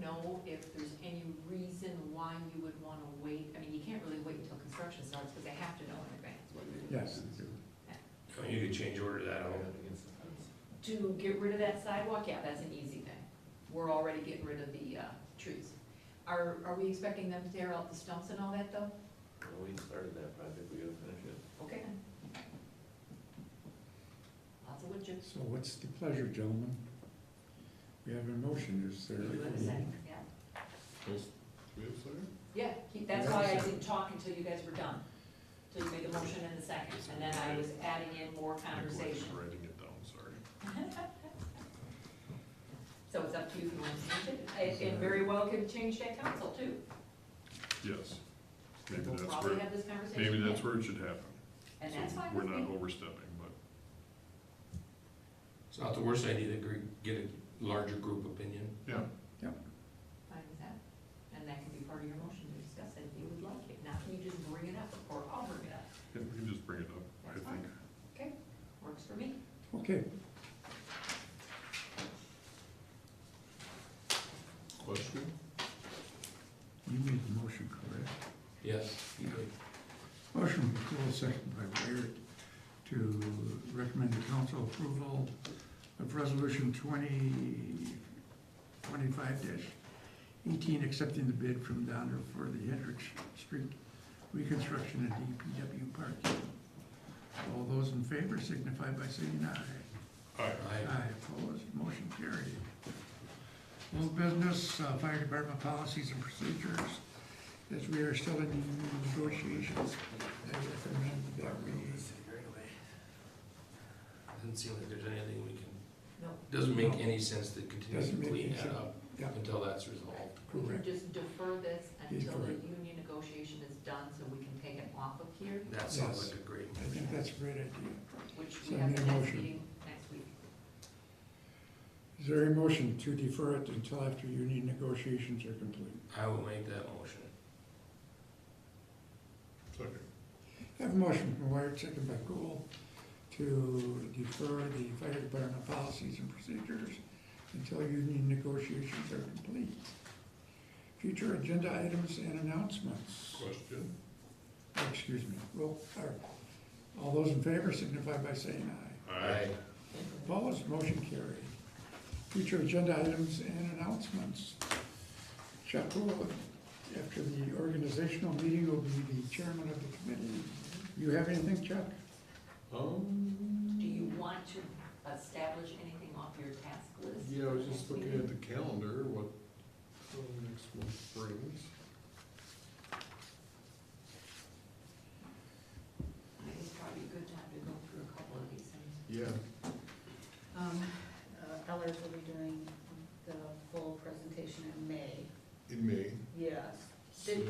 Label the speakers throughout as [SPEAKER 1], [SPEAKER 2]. [SPEAKER 1] know if there's any reason why you would wanna wait? I mean, you can't really wait until construction starts, because they have to know in advance. what you're doing.
[SPEAKER 2] Yes.
[SPEAKER 3] Oh, You could change order that all.
[SPEAKER 1] To get rid of that sidewalk, yeah, that's an easy thing. We're already getting rid of the, uh, trees. Are, are we expecting them to tear out the stumps and all that, though?
[SPEAKER 3] Well, we started that project, we gotta finish it.
[SPEAKER 1] Okay then. Lots of wood chips.
[SPEAKER 2] So what's the pleasure, gentlemen? We have a motion, is there?
[SPEAKER 1] Yeah, yeah, he- that's
[SPEAKER 2] Yeah.
[SPEAKER 1] why I didn't talk until you guys were done, till you made the motion in the second, and then I was adding in more conversation.
[SPEAKER 4] Writing it down, sorry.
[SPEAKER 1] So it's up to you if you want to change it, It- it very well could change that council too.
[SPEAKER 4] Yes. Maybe
[SPEAKER 1] We'll
[SPEAKER 4] that's
[SPEAKER 1] probably
[SPEAKER 4] where,
[SPEAKER 1] have this conversation.
[SPEAKER 4] maybe that's
[SPEAKER 1] again,
[SPEAKER 4] where it should happen.
[SPEAKER 1] And
[SPEAKER 4] So
[SPEAKER 1] that's fine
[SPEAKER 4] We're
[SPEAKER 1] with
[SPEAKER 4] not
[SPEAKER 1] me.
[SPEAKER 4] overstepping, but
[SPEAKER 5] It's not the worst idea to gr- get a larger group opinion.
[SPEAKER 1] Fine with that. And that can be part of your motion to discuss it if you would like it. Not you just bring it up or I'll bring it up.
[SPEAKER 4] yeah, we can just bring it up, I
[SPEAKER 1] That's
[SPEAKER 4] think.
[SPEAKER 1] Works for me.
[SPEAKER 2] Okay,
[SPEAKER 5] Question?
[SPEAKER 2] you made the motion, correct?
[SPEAKER 5] Yes, you did.
[SPEAKER 2] Motion by Cool, second by Baird, to recommend the council approval of resolution twenty, twenty-five eighteen, accepting the bid from Donner for the Hendrick Street reconstruction at E DPW parking. All those in favor signify by saying aye.
[SPEAKER 5] I,
[SPEAKER 2] Aye, opposed, motion carried. Old business, uh, fire department policies and procedures, as we are still in negotiations, I recommend that we,
[SPEAKER 5] doesn't seem like there's anything we can,
[SPEAKER 1] No,
[SPEAKER 5] doesn't make any sense to continue
[SPEAKER 2] Doesn't
[SPEAKER 5] to
[SPEAKER 2] make
[SPEAKER 5] clean
[SPEAKER 2] any
[SPEAKER 5] that
[SPEAKER 2] sense.
[SPEAKER 5] up
[SPEAKER 2] yeah,
[SPEAKER 5] until that's resolved.
[SPEAKER 1] we can
[SPEAKER 2] correct,
[SPEAKER 1] just defer this until the
[SPEAKER 2] Defer it.
[SPEAKER 1] union negotiation is done so we can take it off of here,
[SPEAKER 5] That sounds like a great
[SPEAKER 2] I think
[SPEAKER 5] motion.
[SPEAKER 2] that's a great idea.
[SPEAKER 1] which
[SPEAKER 2] So
[SPEAKER 1] we
[SPEAKER 2] I
[SPEAKER 1] have
[SPEAKER 2] need
[SPEAKER 1] the
[SPEAKER 2] a
[SPEAKER 1] next
[SPEAKER 2] motion.
[SPEAKER 1] meeting next week.
[SPEAKER 2] Is there a motion to defer it until after union negotiations are complete?
[SPEAKER 5] I will make that motion.
[SPEAKER 4] Second.
[SPEAKER 2] I Have a motion from Wired, second by Cool, to defer the fire department policies and procedures until union negotiations are complete. Future agenda items and announcements. Oh,
[SPEAKER 4] Question?
[SPEAKER 2] Excuse me, roll, or, all those in favor signify by saying aye.
[SPEAKER 5] I,
[SPEAKER 2] Opposed, motion carried. Future agenda items and announcements. Chuck Cool, after the organizational meeting, will be the chairman of the committee. You have anything, Chuck?
[SPEAKER 4] Um,
[SPEAKER 1] Do you want to establish anything off your task list?
[SPEAKER 4] Yeah, I was
[SPEAKER 1] just looking at
[SPEAKER 4] the calendar, what next month brings.
[SPEAKER 1] It's probably a good time to go through a couple of these things.
[SPEAKER 4] Yeah.
[SPEAKER 6] Um, uh, Ellers will be doing the full presentation in May.
[SPEAKER 4] In May.
[SPEAKER 6] Yes. Did,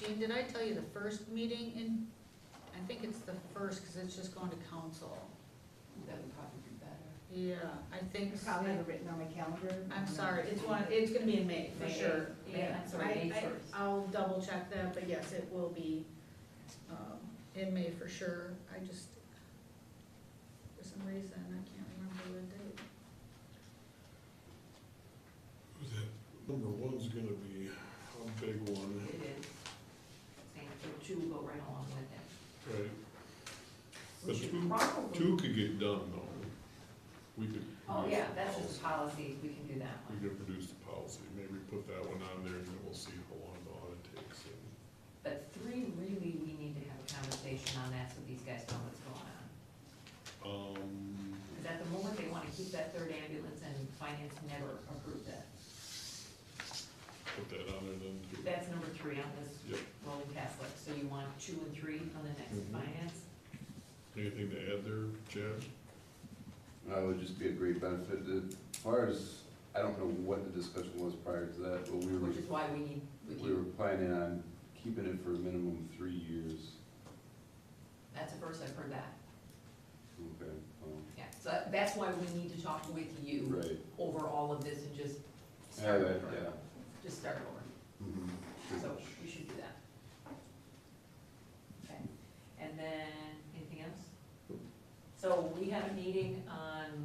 [SPEAKER 6] Jean, did I tell you the first meeting in, I think it's the first, cause it's just going to council.
[SPEAKER 1] That would probably be better.
[SPEAKER 6] Yeah, I think,
[SPEAKER 7] I probably have it written on my calendar.
[SPEAKER 6] I'm sorry, it's one, it's gonna be in May, for
[SPEAKER 1] May
[SPEAKER 6] sure.
[SPEAKER 1] eighth, May-
[SPEAKER 6] Yeah,
[SPEAKER 1] I'm sorry,
[SPEAKER 6] I-
[SPEAKER 1] May
[SPEAKER 6] I-
[SPEAKER 1] first.
[SPEAKER 6] I'll double check that, but yes, it will be, um, in May for sure. I just, for some reason, I can't remember the date.
[SPEAKER 4] Number one's gonna be a big one,
[SPEAKER 1] It is. Same, so two will go right along with it.
[SPEAKER 4] right?
[SPEAKER 1] We
[SPEAKER 4] But
[SPEAKER 1] should
[SPEAKER 4] two-
[SPEAKER 1] probably-
[SPEAKER 4] Two could get done though. We could.
[SPEAKER 1] Oh, yeah, that's just policy, we can do that
[SPEAKER 4] We
[SPEAKER 1] one.
[SPEAKER 4] could produce the policy, maybe put that one on there and then we'll see how long the audit takes. and-
[SPEAKER 1] But three, really, we need to have a conversation on that so these guys know what's going on.
[SPEAKER 4] Um,
[SPEAKER 1] Because at the moment, they want to keep that third ambulance and finance never approved that.
[SPEAKER 4] put that on there then too.
[SPEAKER 1] That's number three on this
[SPEAKER 4] Yep,
[SPEAKER 1] rolling task list, so you want two and three on the next
[SPEAKER 4] Mhm.
[SPEAKER 1] finance?
[SPEAKER 4] anything to add there, Chad?
[SPEAKER 8] That would just be a great benefit. As far as, I don't know what the discussion was prior to that, but we were,
[SPEAKER 1] Which is why we need, we
[SPEAKER 8] we were
[SPEAKER 1] need,
[SPEAKER 8] planning on keeping it for a minimum of three years.
[SPEAKER 1] that's the first I've heard that,
[SPEAKER 8] Okay, um,
[SPEAKER 1] yeah, so that- that's why we need to talk with you
[SPEAKER 8] right,
[SPEAKER 1] over all of this and just Mm-hmm.
[SPEAKER 8] yeah,
[SPEAKER 1] start
[SPEAKER 8] that,
[SPEAKER 1] over,
[SPEAKER 8] yeah.
[SPEAKER 1] just start over,
[SPEAKER 8] Mhm.
[SPEAKER 1] so we should do that. Okay, and then, anything else? So we had a meeting on